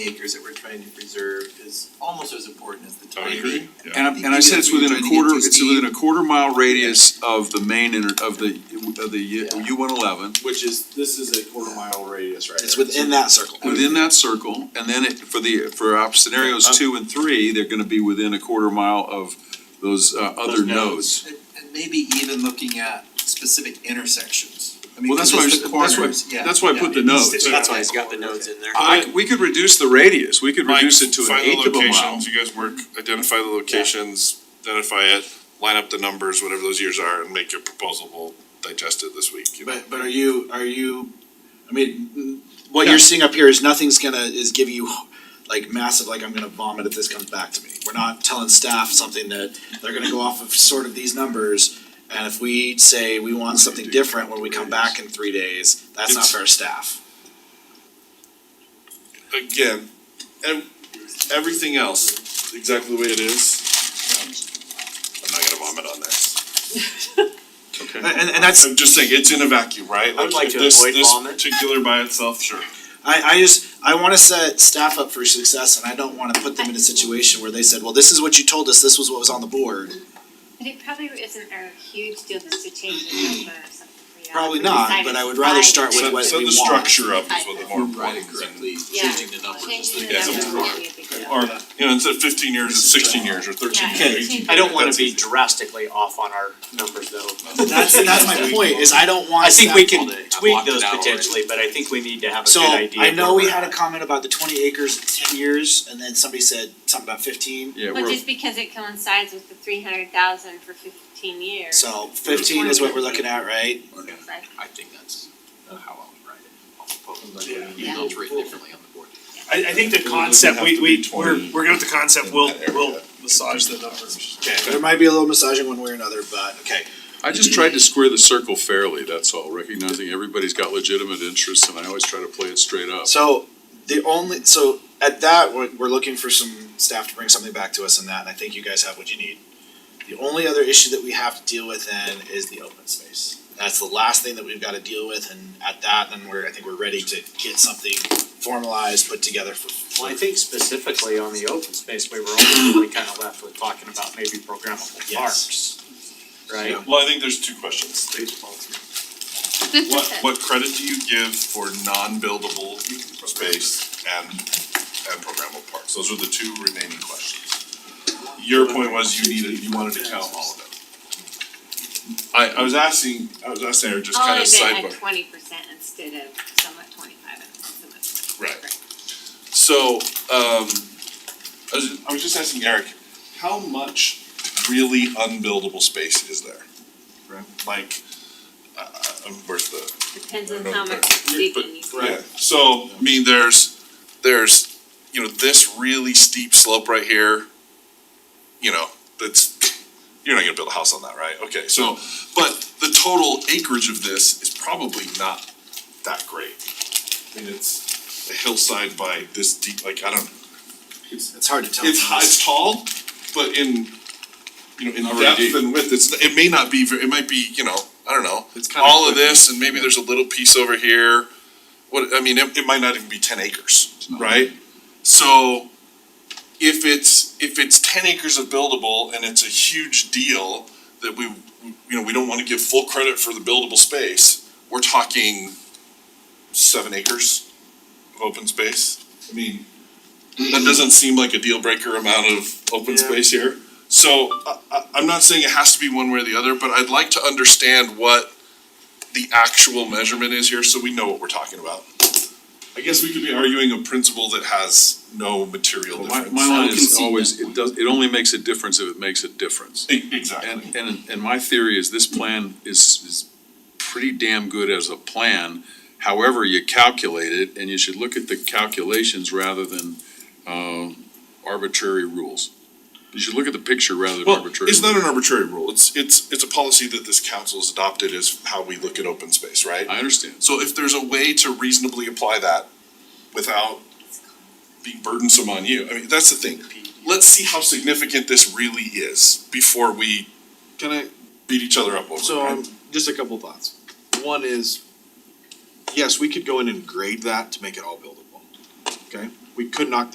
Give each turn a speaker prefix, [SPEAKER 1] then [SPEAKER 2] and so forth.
[SPEAKER 1] acres that we're trying to preserve is almost as important as the
[SPEAKER 2] I
[SPEAKER 1] tiny.
[SPEAKER 2] agree, yeah.
[SPEAKER 3] And I, and I said it's within a quarter, it's within a quarter mile radius of the main inter, of the, of the U one eleven,
[SPEAKER 4] Which is, this is a quarter mile radius, right?
[SPEAKER 5] It's
[SPEAKER 4] here.
[SPEAKER 5] within that circle.
[SPEAKER 3] within that circle, and then it, for the, for our scenarios two and three, they're gonna be within a quarter mile of those, uh, other
[SPEAKER 4] Those
[SPEAKER 3] nodes.
[SPEAKER 4] nodes.
[SPEAKER 5] And, and maybe even looking at specific intersections. I mean,
[SPEAKER 3] Well, that's
[SPEAKER 5] 'cause
[SPEAKER 3] why, I
[SPEAKER 5] it's
[SPEAKER 3] was-
[SPEAKER 5] the
[SPEAKER 3] that's
[SPEAKER 5] corners,
[SPEAKER 3] why,
[SPEAKER 5] yeah.
[SPEAKER 3] that's why I put the nodes.
[SPEAKER 1] That's why it's got the nodes in there.
[SPEAKER 3] I, we could reduce the radius, we could
[SPEAKER 2] Mike,
[SPEAKER 3] reduce it to an
[SPEAKER 2] find the
[SPEAKER 3] eighth of a mile.
[SPEAKER 2] locations, you guys work, identify the locations, identify it, line up the numbers, whatever those years are, and make your proposal, we'll digest it this week. you know.
[SPEAKER 4] But, but are you, are you, I mean,
[SPEAKER 5] What
[SPEAKER 4] Yeah.
[SPEAKER 5] you're seeing up here is nothing's gonna, is giving you like massive, like I'm gonna vomit if this comes back to me. We're not telling staff something that they're gonna go off of sort of these numbers. And if we say we want something different when we come back in three days, that's not
[SPEAKER 2] It's-
[SPEAKER 5] fair staff.
[SPEAKER 2] Again, ev- everything else, exactly the way it is. I'm not gonna vomit on this.
[SPEAKER 5] And, and- and that's,
[SPEAKER 2] I'm just saying, it's in a vacuum, right?
[SPEAKER 1] I would like
[SPEAKER 2] if
[SPEAKER 1] to
[SPEAKER 2] this-
[SPEAKER 1] avoid
[SPEAKER 2] this
[SPEAKER 1] vomit.
[SPEAKER 2] Particular by itself, sure.
[SPEAKER 5] I, I just, I wanna set staff up for success and I don't wanna put them in a situation where they said, well, this is what you told us, this was what was on the board.
[SPEAKER 6] But it probably isn't a huge deal just to change the number of something. we are.
[SPEAKER 5] Probably not, but I would rather start with
[SPEAKER 2] Set,
[SPEAKER 5] what
[SPEAKER 2] set
[SPEAKER 5] we
[SPEAKER 2] the
[SPEAKER 5] want.
[SPEAKER 2] structure up is what the more important thing.
[SPEAKER 6] Yeah.
[SPEAKER 1] the numbers
[SPEAKER 6] Changing
[SPEAKER 2] Yeah,
[SPEAKER 6] the
[SPEAKER 2] so
[SPEAKER 6] number would be a big deal.
[SPEAKER 2] Or, you know, instead of fifteen years, it's sixteen years or thirteen
[SPEAKER 6] Yeah,
[SPEAKER 2] years.
[SPEAKER 6] 18.
[SPEAKER 7] I don't wanna
[SPEAKER 2] That's
[SPEAKER 7] be drastically off on our numbers though.
[SPEAKER 5] That's, that's my point, is I don't want
[SPEAKER 7] I think we
[SPEAKER 5] staff-
[SPEAKER 7] can tweak
[SPEAKER 1] blocked it
[SPEAKER 7] those
[SPEAKER 1] out already.
[SPEAKER 7] potentially, but I think we need to have a
[SPEAKER 5] So,
[SPEAKER 7] good idea.
[SPEAKER 5] I
[SPEAKER 7] of
[SPEAKER 5] know we
[SPEAKER 7] where we're
[SPEAKER 5] had a
[SPEAKER 7] at.
[SPEAKER 5] comment about the twenty acres in ten years, and then somebody said something about fifteen.
[SPEAKER 3] Yeah,
[SPEAKER 6] Well,
[SPEAKER 3] we're,
[SPEAKER 6] just because it coincides with the three hundred thousand for fifteen years.
[SPEAKER 5] So fifteen is what we're looking at, right?
[SPEAKER 6] Like,
[SPEAKER 1] I think that's uh, how I would write it. I'll propose it.
[SPEAKER 8] Yeah.
[SPEAKER 1] Even though it's written differently on the board.
[SPEAKER 8] I, I think the concept, we, we, we're, we're good with the concept, we'll, we'll massage the numbers.
[SPEAKER 5] There might be a little massaging one way or another, but okay.
[SPEAKER 3] I just tried to square the circle fairly, that's all, recognizing everybody's got legitimate interests, and I always try to play it straight up.
[SPEAKER 5] So the only, so at that, we're, we're looking for some staff to bring something back to us on that, and I think you guys have what you need. The only other issue that we have to deal with then is the open space. That's the last thing that we've gotta deal with, and at that, then we're, I think we're ready to get something formalized, put together for.
[SPEAKER 7] Well, I think specifically on the open space, we were only really kinda left with talking about maybe programmable
[SPEAKER 5] Yes.
[SPEAKER 7] parks. Right?
[SPEAKER 2] Well, I think there's two questions. What, what credit do you give for non-buildable space and, and programmable parks? Those are the two remaining questions. Your point was you needed, you wanted to count all of them. I, I was asking, I was asking, her just
[SPEAKER 6] All
[SPEAKER 2] kind
[SPEAKER 6] of
[SPEAKER 2] of
[SPEAKER 6] it at
[SPEAKER 2] sidebar.
[SPEAKER 6] twenty percent instead of somewhat twenty-five and somewhat twenty.
[SPEAKER 2] Right. So, um, I was, I was just asking Eric, how much really unbuildable space is there? Right. Like, uh, uh, where's the,
[SPEAKER 6] Depends on
[SPEAKER 2] No,
[SPEAKER 6] how
[SPEAKER 2] but-
[SPEAKER 6] much
[SPEAKER 2] but-
[SPEAKER 6] digging you do.
[SPEAKER 2] Yeah, so, I mean, there's, there's, you know, this really steep slope right here, you know, that's, you're not gonna build a house on that, right? Okay, so, but the total acreage of this is probably not that great. I mean, it's a hillside by this deep, like, I don't,
[SPEAKER 5] It's hard to tell.
[SPEAKER 2] it's, high- it's tall, but in, you know, in
[SPEAKER 3] Already
[SPEAKER 2] depth and width, it's, it may not be, ver- it might be, you know, I don't know,
[SPEAKER 1] It's kind of.
[SPEAKER 2] all of this, and maybe there's a little piece over here. What, I mean, it, it might not even be ten acres, right? So if it's, if it's ten acres of buildable and it's a huge deal that we, you know, we don't wanna give full credit for the buildable space, we're talking seven acres of open space. I mean, that doesn't seem like a deal breaker amount of open
[SPEAKER 8] Yeah.
[SPEAKER 2] space here. So I, I, I'm not saying it has to be one way or the other, but I'd like to understand what the actual measurement is here, so we know what we're talking about. I guess we could be arguing a principle that has no material
[SPEAKER 3] Well, My,
[SPEAKER 2] difference.
[SPEAKER 3] my line is
[SPEAKER 1] concede
[SPEAKER 3] always,
[SPEAKER 1] that
[SPEAKER 3] it does, it only makes a difference if it makes a difference.
[SPEAKER 2] E- Exactly.
[SPEAKER 3] And, and, and my theory is this plan is, is pretty damn good as a plan. However, you calculate it, and you should look at the calculations rather than, um, arbitrary rules. You should look at the picture rather than
[SPEAKER 2] Well,
[SPEAKER 3] arbitrary.
[SPEAKER 2] it's not
[SPEAKER 3] rules.
[SPEAKER 2] an arbitrary rule. It's, it's, it's a policy that this council has adopted is how we look at open space, right?
[SPEAKER 3] I understand.
[SPEAKER 2] So if there's a way to reasonably apply that without being burdensome on you, I mean, that's the thing. Let's see how significant this really is before we
[SPEAKER 4] Can I,
[SPEAKER 2] beat each other up over it.
[SPEAKER 4] So,
[SPEAKER 2] right?
[SPEAKER 4] um, just a couple thoughts. One is, yes, we could go in and grade that to make it all buildable, okay? We
[SPEAKER 2] we could knock